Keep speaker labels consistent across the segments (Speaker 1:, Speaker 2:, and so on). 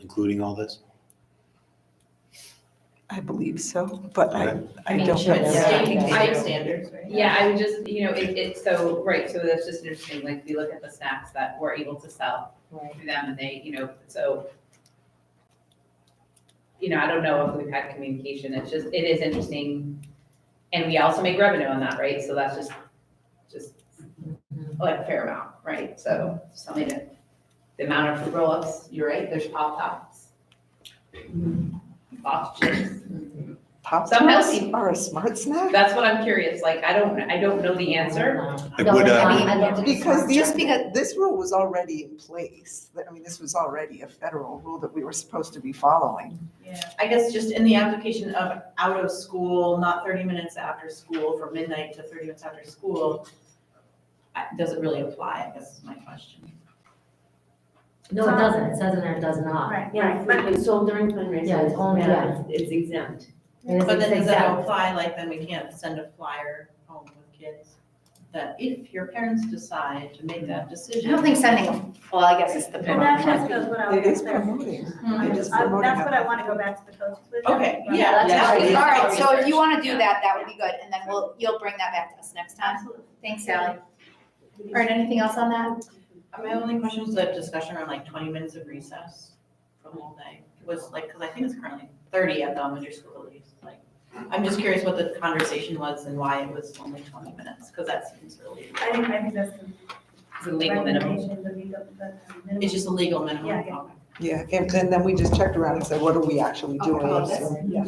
Speaker 1: including all this?
Speaker 2: I believe so, but I,
Speaker 1: Okay.
Speaker 2: I
Speaker 3: mean,
Speaker 2: don't
Speaker 3: should it stay
Speaker 2: know.
Speaker 3: the
Speaker 4: Yeah.
Speaker 3: same standards, right?
Speaker 4: Yeah, I would just, you know, it, it, so, right, so that's just interesting, like, we look at the snacks that we're able to sell
Speaker 3: Right.
Speaker 4: through them, and they, you know, so. You know, I don't know if we've had communication, it's just, it is interesting, and we also make revenue on that, right, so that's just, just like a fair amount, right, so, something to, the amount of roll-ups, you're right, there's pop-tops. Box chips,
Speaker 2: Pop
Speaker 4: Some
Speaker 2: tarts
Speaker 4: healthy-
Speaker 2: are a smart snack?
Speaker 4: that's what I'm curious, like, I don't, I don't know the answer,
Speaker 1: Like, would,
Speaker 3: No,
Speaker 1: uh,
Speaker 3: I love the
Speaker 2: Because
Speaker 3: smart
Speaker 2: these,
Speaker 3: choice.
Speaker 2: this rule was already in place. I mean, this was already a federal rule that we were supposed to be following.
Speaker 5: Yeah, I guess just in the application of out of school, not thirty minutes after school, from midnight to thirty minutes after school, I- does it really apply, I guess is my question.
Speaker 3: No, it doesn't, it says in there it does not.
Speaker 5: Right.
Speaker 6: Yeah, but it's sold during fundraisers.
Speaker 3: Yeah, it's only- yeah.
Speaker 6: It's it's exempt.
Speaker 3: And it's
Speaker 5: But then does that
Speaker 3: exact-
Speaker 5: apply, like, then we can't send a flyer home with kids? That if your parents decide to make that
Speaker 3: I
Speaker 5: decision.
Speaker 3: don't think sending, a well, I guess it's the.
Speaker 6: And that just goes what
Speaker 3: Oh,
Speaker 6: I was
Speaker 2: It is
Speaker 6: gonna say.
Speaker 2: promoting.
Speaker 5: Mhm.
Speaker 2: It is
Speaker 6: I-
Speaker 2: promoting.
Speaker 6: That's what I
Speaker 2: it.
Speaker 6: want to go back to the coaches with.
Speaker 5: Okay,
Speaker 6: Right.
Speaker 5: yeah,
Speaker 3: That's
Speaker 5: yeah.
Speaker 3: what it is.
Speaker 5: Yeah.
Speaker 3: all right, so if
Speaker 4: Research.
Speaker 3: you wanna do that, that would be good, and then we'll, you'll bring that back to us next time.
Speaker 6: Absolutely.
Speaker 3: Thanks, Sally. Erin, anything else on that?
Speaker 5: My only question was that discussion around like twenty minutes of recess from all day, It was like, because I think it's currently thirty at the elementary school at least, like. I'm just curious what the conversation was and why it was only twenty minutes, because that seems really,
Speaker 6: I think, I think that's the
Speaker 4: it's a legal minimum.
Speaker 6: recommendation, the legal, the minimum.
Speaker 5: it's just a legal minimum.
Speaker 6: Yeah, yeah.
Speaker 2: Yeah, and and then we just checked around and said, what are we actually doing?
Speaker 3: Oh, that's-
Speaker 2: So, yeah.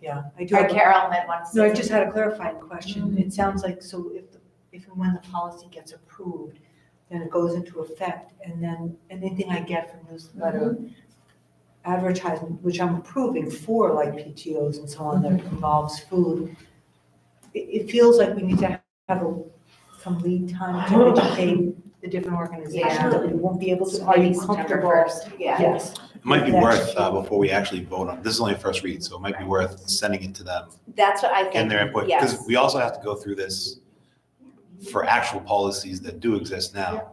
Speaker 2: Yeah, I do
Speaker 3: Or
Speaker 2: have
Speaker 3: Carol had one.
Speaker 7: No, I just had a clarifying
Speaker 3: Mm-hmm.
Speaker 7: question. It sounds like, so if, the- if and when the policy gets approved, then it goes into effect, and then anything I get from newsletter
Speaker 3: Mm-hmm.
Speaker 7: advertisement, which I'm approving for like PTOs and so on that
Speaker 3: Mm-hmm.
Speaker 7: involves food, it, it feels like we need to have a, some lead time to educate the different organizations that we won't be able to, are you comfortable?
Speaker 3: Yeah.
Speaker 7: Yes.
Speaker 1: It might be
Speaker 7: Yeah.
Speaker 1: worth, uh, before we actually vote on, this is only a first read, so it might be worth sending it to them,
Speaker 3: That's what I think.
Speaker 1: getting their input. Because
Speaker 3: Yes.
Speaker 1: we also have to go through this for actual policies that do exist now.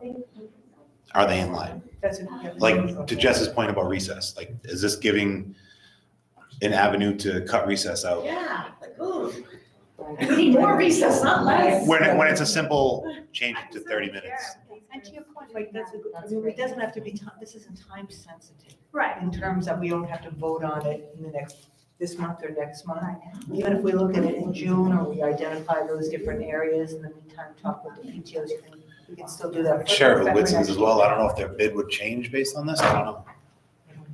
Speaker 1: Are they in line?
Speaker 7: That's a-
Speaker 1: Like, to Jess's point about recess, like, is this giving an avenue to cut recess out?
Speaker 5: Yeah, like, ooh, we need more recess, not less.
Speaker 1: When, it- when it's a simple change it to thirty minutes.
Speaker 6: And to your point.
Speaker 7: Like, that's a good, I
Speaker 3: That's
Speaker 7: mean, it
Speaker 3: great.
Speaker 7: doesn't have to be, ti- this isn't time sensitive.
Speaker 6: Right.
Speaker 7: in terms that we don't have to vote on it in the next, this month or next month. Even if we look at it in June or we identify those different areas in the meantime, talk with the PTOs, you can- we can still do that.
Speaker 1: Sheriff Whitson's as well, I don't know if their bid would change based on this, I don't know.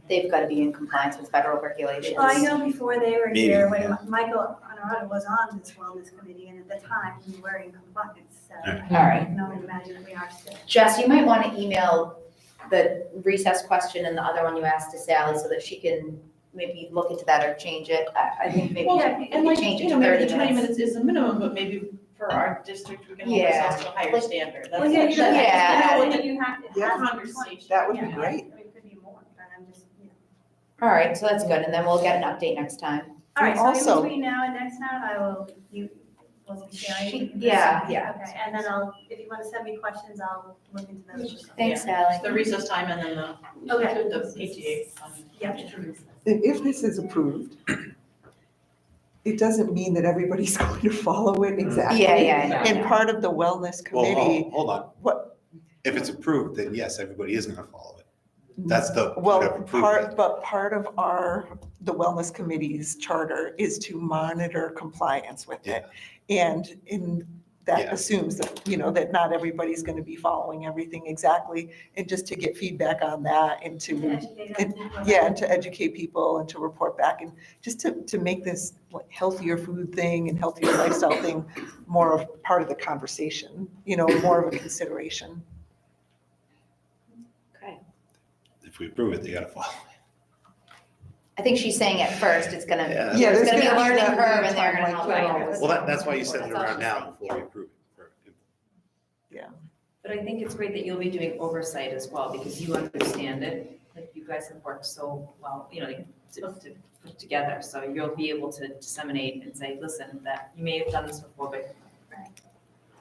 Speaker 3: They've got to be in compliance with federal regulations.
Speaker 6: Well, I know before they were
Speaker 1: Maybe,
Speaker 6: here,
Speaker 1: yeah.
Speaker 6: when Michael Honorado was on this wellness committee, and at the time, we were in compliance, so.
Speaker 1: All
Speaker 3: All right.
Speaker 6: No one imagined we are still.
Speaker 3: Jess, you might want to email the recess question and the other one you asked to Sally so that she can maybe look into that or change it. I, I think maybe
Speaker 5: Well,
Speaker 3: we
Speaker 5: And
Speaker 3: could
Speaker 5: like,
Speaker 3: change
Speaker 5: you
Speaker 3: it
Speaker 5: know,
Speaker 3: to
Speaker 5: maybe
Speaker 3: thirty
Speaker 5: the twenty
Speaker 3: minutes.
Speaker 5: minutes is the minimum, but maybe for our district, we can hold
Speaker 3: Yeah.
Speaker 5: ourselves to a higher
Speaker 3: Like-
Speaker 5: standard.
Speaker 6: Well,
Speaker 5: That's-
Speaker 6: yeah, you don't
Speaker 5: that's-
Speaker 3: Yeah.
Speaker 5: I don't
Speaker 6: have to,
Speaker 5: know what
Speaker 6: yeah,
Speaker 5: the-
Speaker 6: you have to
Speaker 2: Yeah.
Speaker 6: have.
Speaker 5: Conversation.
Speaker 2: That would be
Speaker 6: Yeah.
Speaker 2: great.
Speaker 6: It could be more, but I'm just, you know.
Speaker 3: All right, so that's good. And then we'll get an update next time.
Speaker 6: All right,
Speaker 2: Also-
Speaker 6: so in between now and next time, I will, you, will be
Speaker 3: She-
Speaker 6: sharing.
Speaker 3: yeah, yeah.
Speaker 6: Okay, and then I'll, if you want to send me questions, I'll look into those.
Speaker 3: Thanks, Sally.
Speaker 5: The recess time and then the,
Speaker 6: Okay.
Speaker 5: the PTA. um,
Speaker 6: Yeah.
Speaker 2: And if this is approved, it doesn't mean that everybody's going to follow it exactly.
Speaker 3: Yeah, yeah, yeah.
Speaker 2: And part of the wellness
Speaker 1: Mm. Well,
Speaker 2: committee,
Speaker 1: hold, hold on.
Speaker 2: What?
Speaker 1: If it's approved, then yes, everybody is gonna follow it. That's the.
Speaker 2: well,
Speaker 1: approved.
Speaker 2: part, but part of our, the wellness committee's charter is to monitor compliance with it. And in, that
Speaker 1: Yeah.
Speaker 2: assumes that, you know, that not everybody's going to be following everything exactly. And just to get feedback on that and
Speaker 6: To
Speaker 2: to,
Speaker 6: educate us.
Speaker 2: yeah, and to educate people and to report back and just to, to make this like healthier food thing and healthier lifestyle thing more of part of the conversation, you know, more of a consideration.
Speaker 1: If we approve it, they gotta follow.
Speaker 3: I think she's saying at first it's gonna,
Speaker 1: Yeah,
Speaker 2: Yeah,
Speaker 3: there's
Speaker 2: there's
Speaker 3: gonna be a
Speaker 2: gonna be
Speaker 3: learning
Speaker 2: that
Speaker 3: curve and
Speaker 2: lead
Speaker 3: they're
Speaker 2: time,
Speaker 3: gonna
Speaker 2: like,
Speaker 3: help.
Speaker 2: well,
Speaker 3: guidance.
Speaker 1: Well, that, that's why you send it
Speaker 3: That's all
Speaker 1: around
Speaker 3: she's
Speaker 1: now
Speaker 3: saying.
Speaker 1: before we approve it.
Speaker 4: But I think it's great that you'll be doing oversight as well, because you understand it, like you guys have worked so well, you know, like, to, to put together, so you'll be able to disseminate and say, listen, that you may have done this before, but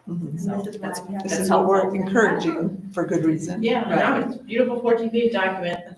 Speaker 2: Mhm.
Speaker 6: And this is what I have.
Speaker 2: This is what we're encouraging for good reason.
Speaker 5: Yeah, no, it's a beautiful fourteen page document,